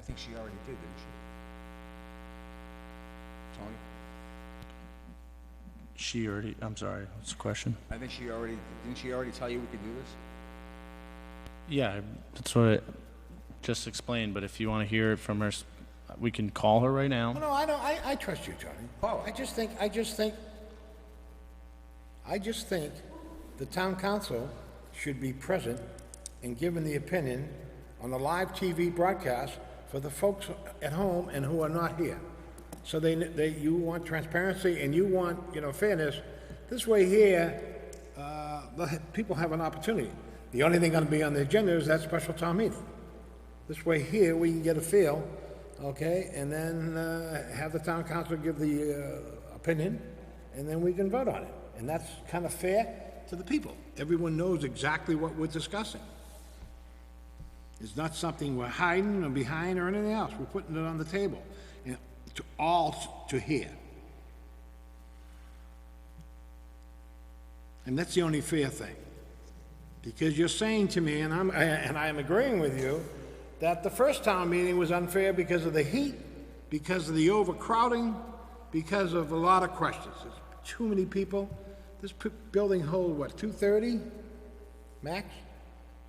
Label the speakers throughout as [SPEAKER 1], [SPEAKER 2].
[SPEAKER 1] think she already did, didn't she? Tony?
[SPEAKER 2] She already, I'm sorry, what's the question?
[SPEAKER 1] I think she already, didn't she already tell you we could do this?
[SPEAKER 2] Yeah, I- that's what I just explained, but if you want to hear it from her, s- we can call her right now.
[SPEAKER 3] No, I don't, I, I trust you, Tony.
[SPEAKER 1] Oh.
[SPEAKER 3] I just think, I just think, I just think the town council should be present and given the opinion on the live TV broadcast for the folks at home and who are not here. So they, they, you want transparency and you want, you know, fairness. This way here, uh, the people have an opportunity. The only thing gonna be on the agenda is that special town meeting. This way here, we can get a feel, okay, and then uh, have the town council give the uh, opinion, and then we can vote on it. And that's kind of fair to the people. Everyone knows exactly what we're discussing. It's not something we're hiding or behind or anything else. We're putting it on the table, and to all to hear. And that's the only fair thing. Because you're saying to me, and I'm, and I am agreeing with you, that the first town meeting was unfair because of the heat, because of the overcrowding, because of a lot of questions. There's too many people. This p- building hold, what, two thirty max?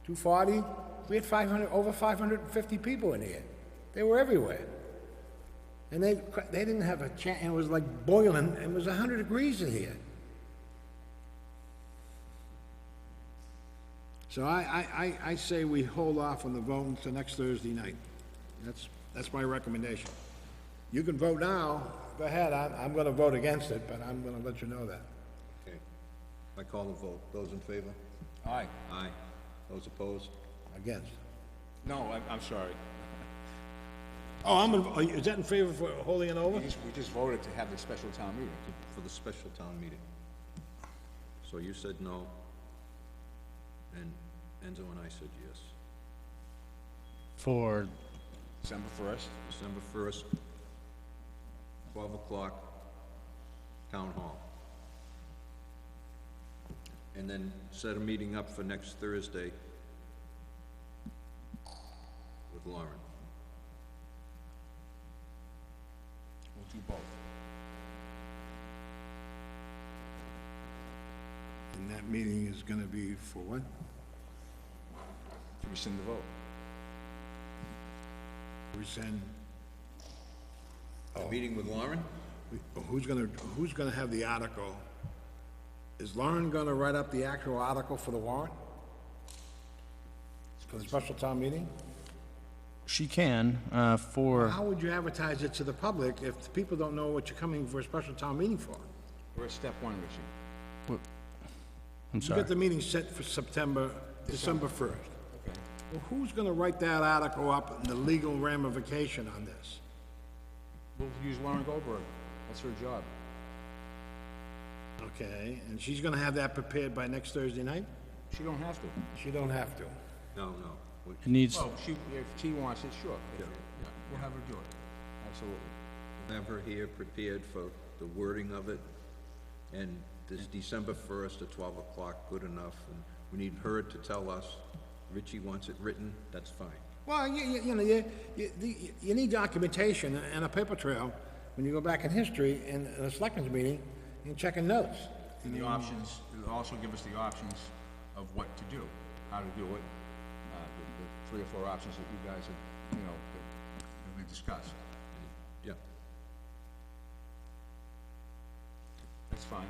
[SPEAKER 3] Two forty? We had five hundred, over five hundred and fifty people in here. They were everywhere. And they, they didn't have a chance, it was like boiling, it was hundred degrees in here. So I, I, I, I say we hold off on the vote until next Thursday night. That's, that's my recommendation. You can vote now, go ahead, I'm, I'm gonna vote against it, but I'm gonna let you know that.
[SPEAKER 4] Okay. I call the vote. Those in favor?
[SPEAKER 1] Aye.
[SPEAKER 4] Aye. Those opposed?
[SPEAKER 3] Against.
[SPEAKER 1] No, I'm, I'm sorry.
[SPEAKER 3] Oh, I'm, in- are you- is that in favor for holding it
[SPEAKER 1] We
[SPEAKER 3] over?
[SPEAKER 1] just, we just voted to have the special town meeting.
[SPEAKER 4] For the special town meeting. So you said no, and Enzo and I said yes.
[SPEAKER 2] For,
[SPEAKER 1] December first,
[SPEAKER 4] December first, twelve o'clock, town hall. And then set a meeting up for next Thursday with Lauren.
[SPEAKER 1] we'll do both.
[SPEAKER 3] And that meeting is gonna be for what?
[SPEAKER 1] To rescind the vote.
[SPEAKER 3] Rescind,
[SPEAKER 4] A meeting with Lauren?
[SPEAKER 3] who's gonna, who's gonna have the article? Is Lauren gonna write up the actual article for the warrant? For the special town meeting?
[SPEAKER 2] she can, uh, for,
[SPEAKER 3] How would you advertise it to the public if the people don't know what you're coming for a special town meeting for?
[SPEAKER 1] We're at step one, Richie.
[SPEAKER 2] I'm
[SPEAKER 3] You
[SPEAKER 2] sorry.
[SPEAKER 3] got the meeting set for September, December first. Well, who's gonna write that article up and the legal ramification on this?
[SPEAKER 1] We'll use Lauren Goldberg. That's her job.
[SPEAKER 3] Okay, and she's gonna have that prepared by next Thursday night?
[SPEAKER 1] She don't have to.
[SPEAKER 3] She don't have to.
[SPEAKER 4] No, no. We-
[SPEAKER 2] It needs,
[SPEAKER 1] Well, she, if she wants it, sure. If- yeah, We'll have her do it. Absolutely.
[SPEAKER 4] have her here prepared for the wording of it, and this December first at twelve o'clock, good enough, and we need her to tell us, Richie wants it written, that's fine.
[SPEAKER 3] Well, you, you, you know, you, you, the- you need documentation and a paper trail when you go back in history and a selectmen's meeting and checking notes.
[SPEAKER 1] And the options, it'll also give us the options of what to do, how to do it, uh, the, the three or four options that you guys have, you know, that that we discussed.
[SPEAKER 4] Yeah,
[SPEAKER 1] That's fine.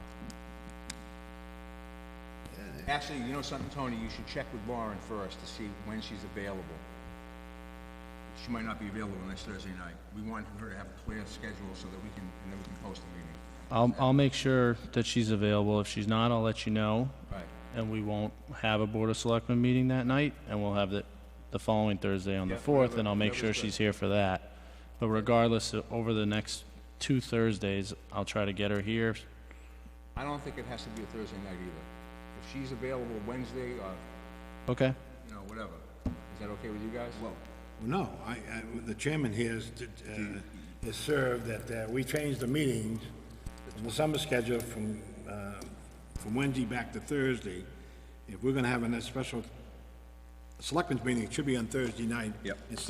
[SPEAKER 1] Actually, you know something, Tony, you should check with Lauren first to see when she's available. She might not be available next Thursday night. We want her to have a clear schedule so that we can, and then we can post the meeting.
[SPEAKER 2] I'll, I'll make sure that she's available. If she's not, I'll let you know.
[SPEAKER 1] Right.
[SPEAKER 2] And we won't have a Board of Selectmen meeting that night, and we'll have it the following Thursday on the
[SPEAKER 1] Yeah,
[SPEAKER 2] 4th,
[SPEAKER 1] whatever-
[SPEAKER 2] and I'll make sure
[SPEAKER 1] whatever's
[SPEAKER 2] she's here for that. But regardless, uh, over the next two Thursdays, I'll try to get her here.
[SPEAKER 1] I don't think it has to be a Thursday night either. If she's available Wednesday or,
[SPEAKER 2] Okay?
[SPEAKER 1] you know, whatever, is that okay with you guys? Well,
[SPEAKER 3] Well, No, I, I, the chairman here has, uh, has served that, uh, we changed the meetings in the summer schedule from, uh, from Wednesday back to Thursday. If we're gonna have a special selectmen's meeting, it should be on Thursday night.
[SPEAKER 4] Yep.
[SPEAKER 3] It starts